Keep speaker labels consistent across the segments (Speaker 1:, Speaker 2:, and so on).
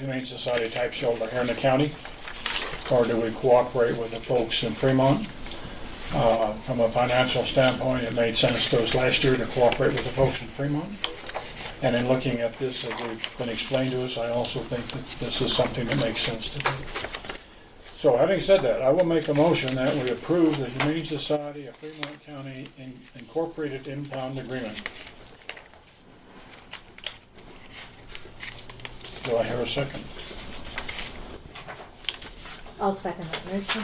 Speaker 1: Humane Society type shelter here in the county, or do we cooperate with the folks in Fremont? Uh, From a financial standpoint, it made sense to us last year to cooperate with the folks in Fremont. And in looking at this, as we've been explained to us, I also think that this is something that makes sense to do. So having said that, I will make a motion that we approve the Humane Society of Fremont County In- Incorporated Impound Agreement. Do I hear a second?
Speaker 2: I'll second that motion.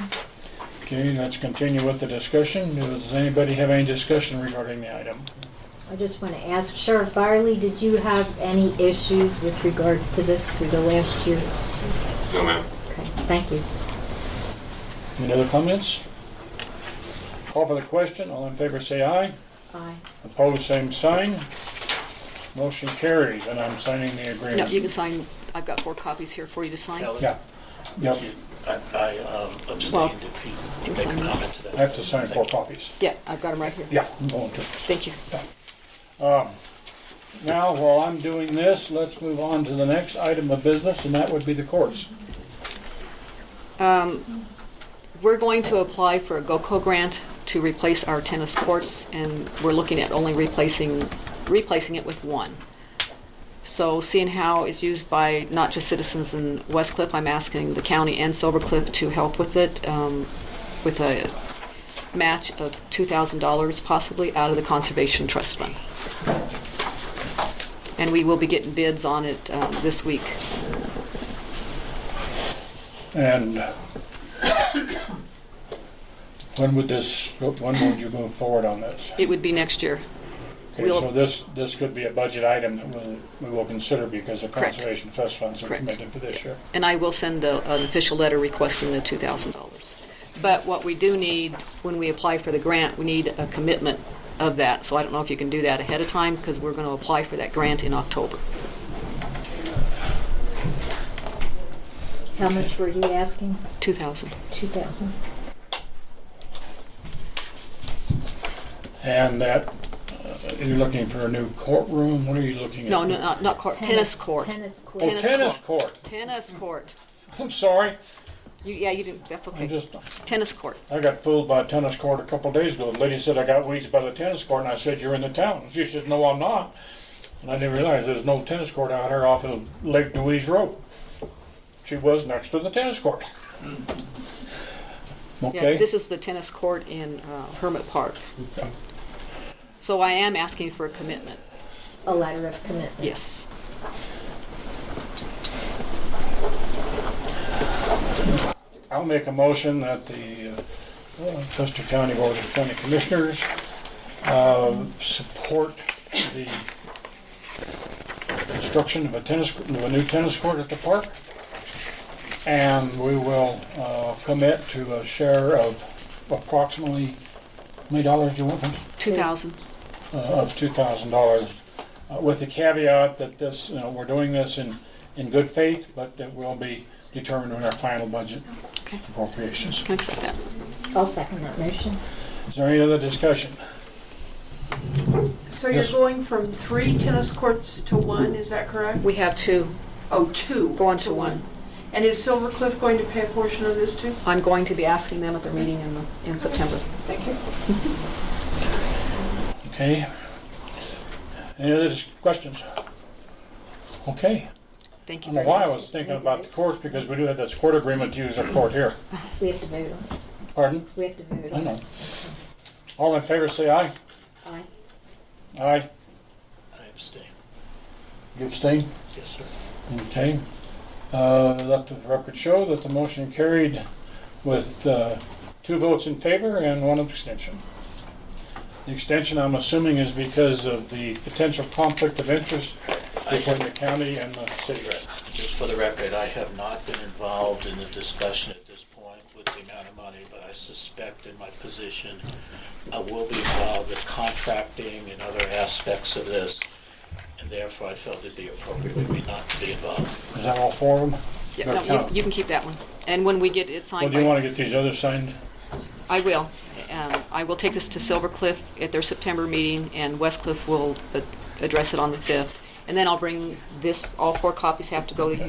Speaker 1: Okay, let's continue with the discussion. Does anybody have any discussion regarding the item?
Speaker 2: I just want to ask Sheriff Barley, did you have any issues with regards to this through the last year?
Speaker 3: No, ma'am.
Speaker 2: Okay, Thank you.
Speaker 1: Any other comments? Call for the question. All in favor, say aye.
Speaker 2: Aye.
Speaker 1: Opposed, same sign. Motion carries, and I'm signing the
Speaker 4: No, you
Speaker 1: agreement.
Speaker 4: can sign, I've got four copies here for you to sign.
Speaker 5: Helen,
Speaker 1: Yeah, yep,
Speaker 5: I I, um,
Speaker 4: Well,
Speaker 5: abstained if you
Speaker 4: you
Speaker 5: make
Speaker 4: sign
Speaker 5: a
Speaker 4: this.
Speaker 5: comment to that.
Speaker 1: I have to sign four copies.
Speaker 4: Yeah, I've got them right here.
Speaker 1: Yeah, I'm going to.
Speaker 4: Thank you.
Speaker 1: Um, Now, while I'm doing this, let's move on to the next item of business, and that would be the courts.
Speaker 4: Um, We're going to apply for a GOCO grant to replace our tennis courts, and we're looking at only replacing, replacing it with one. So seeing how it's used by not just citizens in West Cliff, I'm asking the county and Silver Cliff to help with it, um, with a match of $2,000 possibly out of the Conservation Trust Fund. And we will be getting bids on it um, this week.
Speaker 1: And when would this, when would you move forward on this?
Speaker 4: It would be next year.
Speaker 1: Okay,
Speaker 4: We'll-
Speaker 1: so this, this could be a budget item that we, we will consider because the
Speaker 4: Correct.
Speaker 1: Conservation Trust funds are
Speaker 4: Correct.
Speaker 1: committed for this year.
Speaker 4: And I will send a- an official letter requesting the $2,000. But what we do need, when we apply for the grant, we need a commitment of that. So I don't know if you can do that ahead of time, because we're going to apply for that grant in October.
Speaker 2: How much were you asking?
Speaker 4: 2,000.
Speaker 2: Two thousand?
Speaker 1: And that, uh, you're looking for a new courtroom, what are you looking at?
Speaker 4: No, no, not- not court, tennis court.
Speaker 2: Tennis court.
Speaker 1: Oh, tennis
Speaker 4: tennis
Speaker 1: court,
Speaker 4: Tennis court.
Speaker 1: I'm sorry,
Speaker 4: You- Yeah, you didn't, that's
Speaker 1: I
Speaker 4: okay.
Speaker 1: just,
Speaker 4: Tennis court.
Speaker 1: I got fooled by a tennis court a couple days ago. The lady said I got weeds by the tennis court, and I said, "You're in the town." She said, "No, I'm not." And I didn't realize there's no tennis court out here off of Lake Dewey's Road. She was next to the tennis court.
Speaker 4: Yeah,
Speaker 1: Okay.
Speaker 4: Hmm. this is the tennis court in uh, Hermit Park.
Speaker 1: Okay.
Speaker 4: So I am asking for a commitment,
Speaker 2: A letter of commitment.
Speaker 4: yes.
Speaker 1: I'll make a motion that the uh, uh, Custer County Board of County Commissioners uh, support the construction of a tennis, of a new tennis court at the park. And we will uh, commit to a share of approximately, how many dollars do you want from us?
Speaker 4: 2,000.
Speaker 1: uh, of $2,000, uh, with the caveat that this, you know, we're doing this in, in good faith, but it will be determined in our final budget
Speaker 4: Okay,
Speaker 1: appropriations.
Speaker 4: can I accept that?
Speaker 2: I'll second that motion.
Speaker 1: Is there any other discussion?
Speaker 6: So you're
Speaker 1: Yes.
Speaker 6: going from three tennis courts to one, is that correct?
Speaker 4: We have two.
Speaker 6: Oh, two.
Speaker 4: Going to one.
Speaker 6: And is Silver Cliff going to pay a portion of this too?
Speaker 4: I'm going to be asking them at their meeting in, the- in September.
Speaker 6: Thank you.
Speaker 1: Okay. Any other dis- questions? Okay.
Speaker 4: Thank
Speaker 1: I don't
Speaker 4: you
Speaker 1: know
Speaker 4: very
Speaker 1: why I
Speaker 4: much.
Speaker 1: was thinking about the courts, because we do have this court agreement to use our court here.
Speaker 2: We have to vote on it.
Speaker 1: Pardon?
Speaker 2: We have to vote
Speaker 1: I
Speaker 2: on
Speaker 1: know.
Speaker 2: it.
Speaker 1: All in favor, say aye.
Speaker 2: Aye.
Speaker 1: Aye.
Speaker 5: I abstained,
Speaker 1: You abstain?
Speaker 5: yes, sir.
Speaker 1: Okay. Uh, Let the record show that the motion carried with uh, two votes in favor and one abstention. The extension, I'm assuming, is because of the potential conflict of interest between the county and the city.
Speaker 5: Right. Just for the record, I have not been involved in the discussion at this point with the amount of money, but I suspect in my position, I will be involved with contracting and other aspects of this, and therefore I felt it'd be appropriate for me not to be involved.
Speaker 1: Is that all for them?
Speaker 4: Yeah, no, you- you can keep that one. And when we get it
Speaker 1: Well,
Speaker 4: signed
Speaker 1: do you want
Speaker 4: by,
Speaker 1: to get these others signed?
Speaker 4: I will. Um, I will take this to Silver Cliff at their September meeting, and West Cliff will uh, address it on the 5th. And then I'll bring this, all four copies have to go to